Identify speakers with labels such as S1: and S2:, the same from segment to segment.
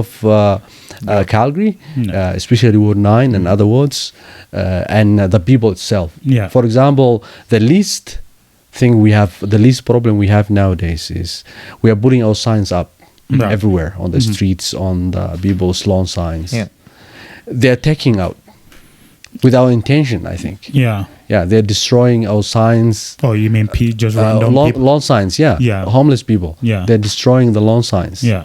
S1: of uh, uh, Calgary, uh, especially Ward 9 and other wards, uh, and uh, the people itself.
S2: Mm. Yeah.
S1: For example, the least thing we have, the least problem we have nowadays is we are putting our signs up
S2: Right. Mm-hmm.
S1: everywhere on the streets, on the people's lawn signs.
S3: Yeah.
S1: They're taking out without intention, I think.
S2: Yeah.
S1: Yeah, they're destroying our signs.
S2: Oh, you mean P just
S1: Uh,
S2: random
S1: lawn,
S2: people?
S1: lawn signs, yeah.
S2: Yeah.
S1: Homeless people.
S2: Yeah.
S1: They're destroying the lawn signs
S2: yeah.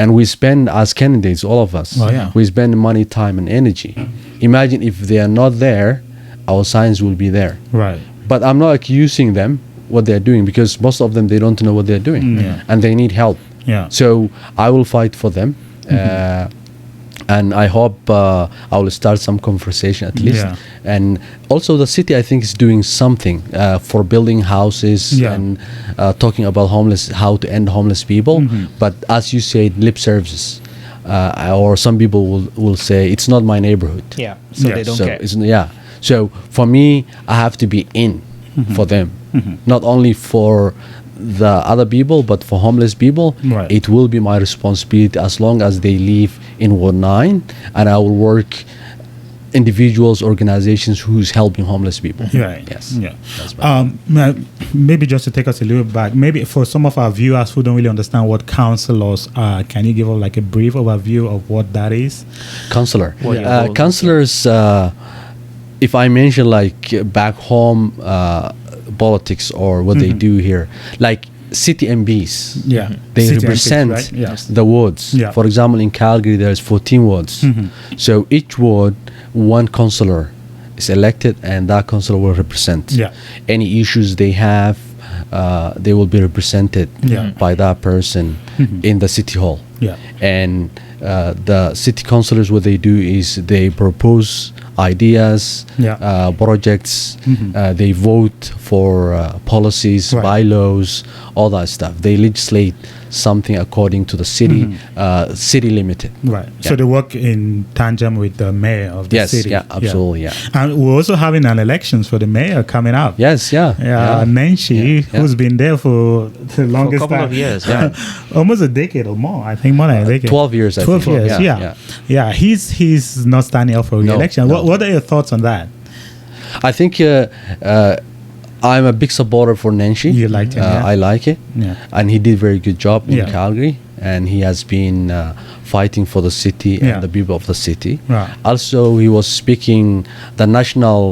S1: and we spend as candidates all of us
S2: Oh, yeah.
S1: we spend money time and energy imagine if they are not there our signs will be there
S2: Right.
S1: but i'm not accusing them what they're doing because most of them they don't know what they're doing
S2: Mm. yeah.
S1: and they need help
S2: Yeah. Mm-hmm.
S1: so i will fight for them uh, and i hope uh, i will start some conversation at least
S2: Yeah.
S1: and also the city i think is doing something uh, for building houses
S2: Yeah.
S1: and uh, talking about homeless how to end homeless people
S2: Mm-hmm.
S1: but as you said lip services uh, or some people will, will say it's not my neighborhood
S3: Yeah. So
S2: Yeah.
S3: they don't
S1: so
S3: care.
S1: it's, yeah so for me i have to be in for them not only for the other people but for homeless people
S2: Right.
S1: it will be my responsibility as long as they live in ward 9 and i will work individuals organizations who's helping homeless people
S2: Right.
S1: yes
S2: Yeah.
S1: That's my-
S2: Um, ma- maybe just to take us a little back, maybe for some of our viewers who don't really understand what counselors are, can you give us like a brief overview of what that is?
S1: counselor
S3: What your
S1: uh,
S3: goals are.
S1: counselors uh, if i mention like uh, back home uh, politics or what they do here like city mbs
S2: Mm-hmm. Yeah.
S1: they
S2: City MPs,
S1: represent
S2: right? Yeah.
S1: the wards.
S2: Yeah. Mm-hmm.
S1: For example, in Calgary, there's 14 wards. So each ward, one councillor is elected, and that councillor will represent
S2: Yeah.
S1: any issues they have. Uh, they will be represented
S2: Yeah. Mm-hmm.
S1: by that person in the city hall.
S2: Yeah.
S1: And uh, the city councillors, what they do is they propose ideas,
S2: Yeah. Mm-hmm.
S1: uh, projects. Uh, they vote for uh, policies,
S2: Right.
S1: bylaws, all that stuff. They legislate something according to the city uh, city limited.
S2: Mm-hmm. Right.
S1: Yeah.
S2: So they work in tandem with the mayor of the
S1: Yes,
S2: city.
S1: yeah, absolutely, yeah.
S2: And we're also having an elections for the mayor coming up.
S1: Yes, yeah,
S2: Yeah, Nenshi,
S1: yeah.
S2: who's been there for the
S3: For a
S2: longest
S3: couple
S2: time.
S3: of years.
S1: Yeah.
S3: Yeah.
S2: almost a decade or more. I think more than a decade.
S1: 12 years, I
S2: Twelve
S1: think.
S2: years.
S1: Yeah,
S2: Yeah,
S1: yeah.
S2: yeah. He's he's not standing up for
S1: No,
S2: re-election. What,
S1: no.
S2: what are your thoughts on that?
S1: I think uh, uh, I'm a big supporter for Nenshi.
S2: You liked him,
S1: Uh,
S2: yeah.
S1: I like it.
S2: Yeah.
S1: And he did very good job in
S2: Yeah.
S1: Calgary, and he has been uh, fighting for the city and
S2: Yeah.
S1: the people of the city.
S2: Right.
S1: Also, he was speaking the national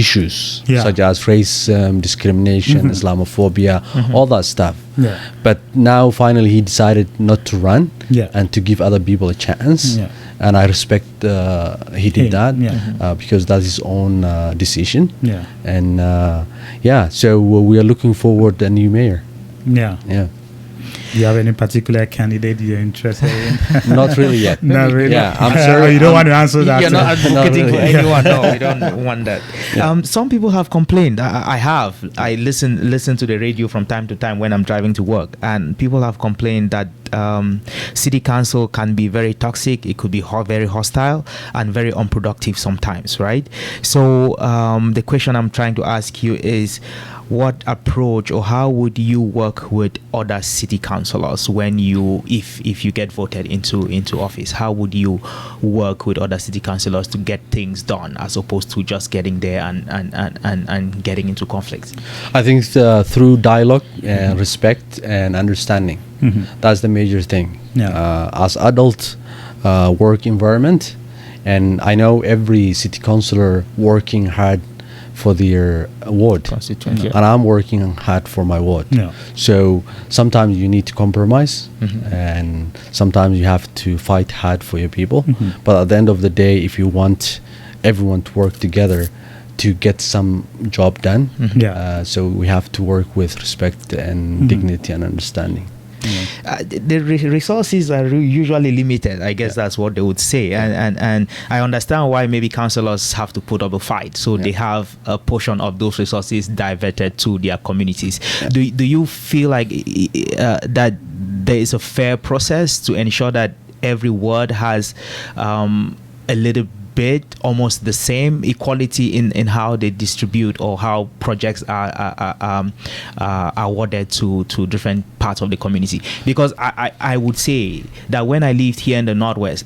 S1: issues
S2: Yeah. Mm-hmm.
S1: such as racism, discrimination, Islamophobia, all that stuff.
S2: Yeah.
S1: But now finally he decided not to run
S2: Yeah.
S1: and to give other people a chance.
S2: Yeah.
S1: And I respect uh, he did
S2: Him,
S1: that
S2: yeah. Mhm.
S1: uh, because that's his own uh, decision.
S2: Yeah.
S1: And uh, yeah, so we are looking forward a new mayor.
S2: Yeah.
S1: Yeah.
S2: Do you have any particular candidate you're interested in?
S1: Not really yet.
S2: Not really.
S1: Yeah, I'm
S2: Oh,
S1: sorry.
S2: you don't
S1: I'm-
S2: want to answer that.
S3: You're not
S1: That's- Not
S3: advocating for
S1: really.
S3: anyone. No, we don't want that. Um, some people have complained. I, I- I have. I listen listen to the radio from time to time when I'm driving to work, and people have complained that um, city council can be very toxic. It could be ho- very hostile and very unproductive sometimes, right? So um, the question I'm trying to ask you is. What approach or how would you work with other city councilors when you, if if you get voted into into office? How would you work with other city councilors to get things done as opposed to just getting there and and, and, and, and getting into conflicts?
S1: I think uh, through dialogue and respect and understanding, that's the major thing.
S2: Mm-hmm. Yeah.
S1: Uh, as adult uh, work environment, and I know every city councilor working hard for their ward,
S3: Constituency.
S1: and I'm working hard for my ward.
S2: Yeah. Mm-hmm.
S1: So sometimes you need to compromise, and sometimes you have to fight hard for your people.
S2: Mm-hmm.
S1: But at the end of the day, if you want everyone to work together to get some job done,
S2: Yeah.
S1: uh, so we have to work with respect and dignity and understanding.
S3: uh, the- the re- resources are re- usually limited. I guess that's what they would say, and and and I understand why maybe councillors have to put up a fight, so they have a portion of those resources diverted to their communities. Do do you feel like i- i- uh, that there is a fair process to ensure that every ward has um, a little bit almost the same equality in, in how they distribute or how projects are, are, are, um, are awarded to, to different parts of the community. Because I, I, I would say that when I lived here in the Northwest,